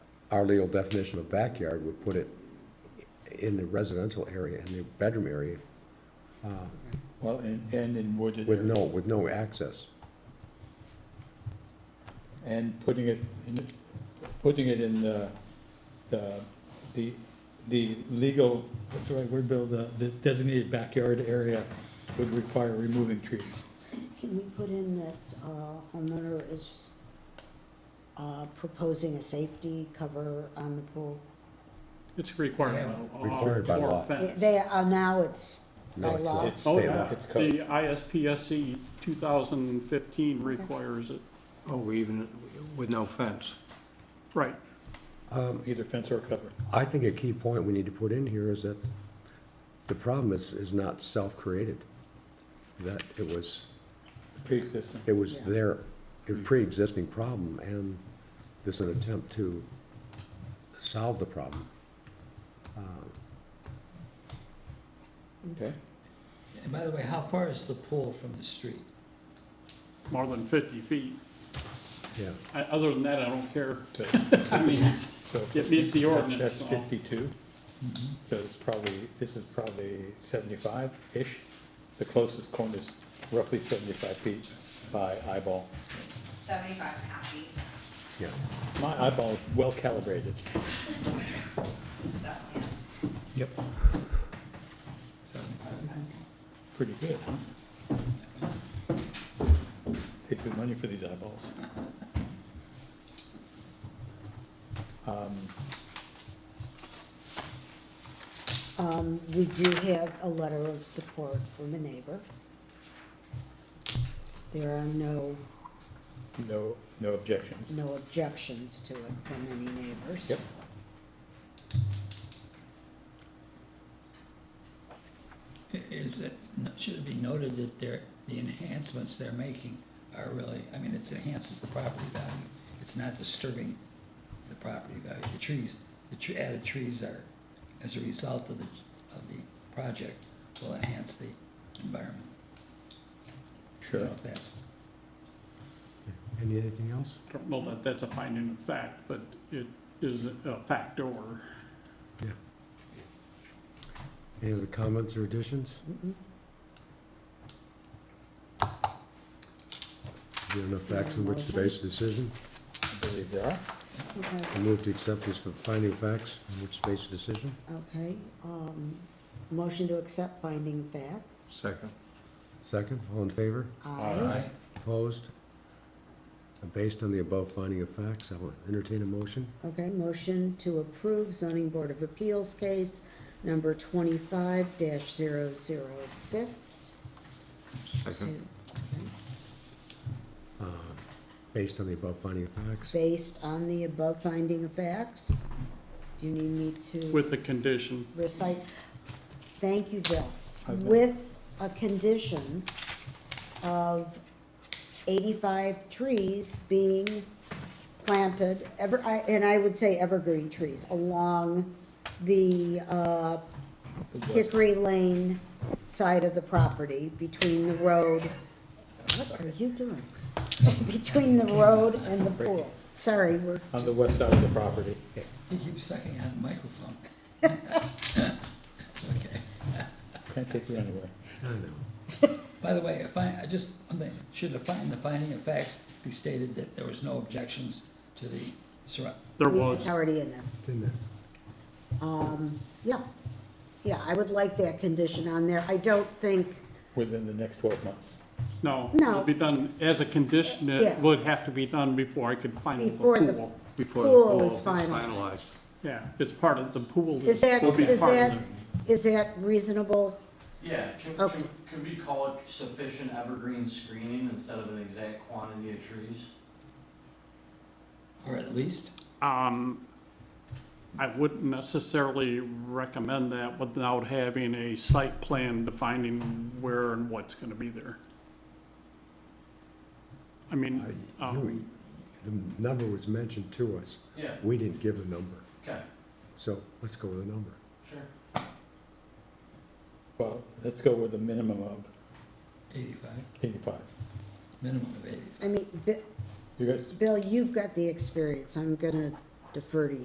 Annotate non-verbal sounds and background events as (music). our legal definition of backyard would put it in the residential area, in the bedroom area, uh, Well, and, and in wooded with area, no, with no access. and putting it, in- putting it in the, the, the, the legal, what's the right word, Bill, the, the designated backyard area would require removing trees. Can we put in that uh, homeowner is uh, proposing a safety cover on the pool? It's a requirement. Required by or law. fence. They, uh, now it's No, by it's- law. it's Oh, state law. yeah, It's code. the ISPSC two thousand fifteen requires it, Oh, even with no fence. right. Either fence or cover. I think a key point we need to put in here is that the problem is, is not self-created. That it was, Pre-existing. it was Yeah. their, a pre-existing problem, and this is an attempt to solve the problem. Okay. And by the way, how far is the pool from the street? More than fifty feet. Yeah, I- Other than that, I don't care. So- (laughs) I mean, so It meets the that's- ordinance, That's so. Mm-hmm. fifty-two, so it's probably, this is probably seventy-five-ish. The closest cone is roughly seventy-five feet by eyeball. 75 and a half feet, yeah. My eyeball is well calibrated. definitely is. Yep. Pretty good, huh? Paid good money for these eyeballs. Um, Um, We do have a letter of support from a neighbor. There are no, No, no objections. no objections to it from any neighbors. Yep. Is it, should it be noted that they're, the enhancements they're making are really, I mean, it enhances the property value. It's not disturbing the property value. The trees, the tr- added trees are, as a result of the, of the project, will enhance the environment. I don't know if that's, Any, anything else? I don't know that that's a finding of fact, but it is a factor. Any other comments or additions? Is there enough facts on which to base a decision? I believe there are. Okay, I move to accept this for finding of facts on which to base a decision. okay. um, Motion to accept finding facts. Second. Second, all in favor? Aye. Opposed? And Based on the above finding of facts, I will entertain a motion. Okay, motion to approve zoning board of appeals case number twenty-five 6 Second. uh, Based on the above finding of facts. Based on the above finding of facts, do you need me to With the condition, recite? Thank you, Bill. Okay. With a condition of eighty-five trees being planted, ever, I- and I would say evergreen trees, along the, uh, Hickory Lane side of the property, between the road, what are you doing? (laughs) Between the road and the pool. Sorry, we're On the just- west side of the property. he keeps sucking on the microphone. (laughs) Okay. Can't take you anywhere. I know. By the way, if I, I just, one thing, should the find, the finding of facts be stated that there was no objections to the surround? there It's was, already in there. Didn't it? Yeah, yeah, I would like that condition on there. I don't think, Within the next twelve months. no. No. It'll be done, as a condition, it Yeah. would have to be done before I could final the Before the- pool. Before the Pool pool is is finalized. finalized. Yeah, it's part of the pool. is that, will be is part of that, the- is that reasonable? Yeah, can, Okay. can, can we call it sufficient evergreen screening instead of an exact quantity of trees? Or at least, Um, I wouldn't necessarily recommend that without having a site plan defining where and what's gonna be there. I mean, I- you- um, The number was mentioned to us. Yeah, We didn't give a number, okay, so let's go with a number. sure. Well, let's go with a minimum of eighty-five, eighty-five. minimum of eighty-five. I mean, Bi- You guys, Bill, you've got the experience. I'm gonna defer to you.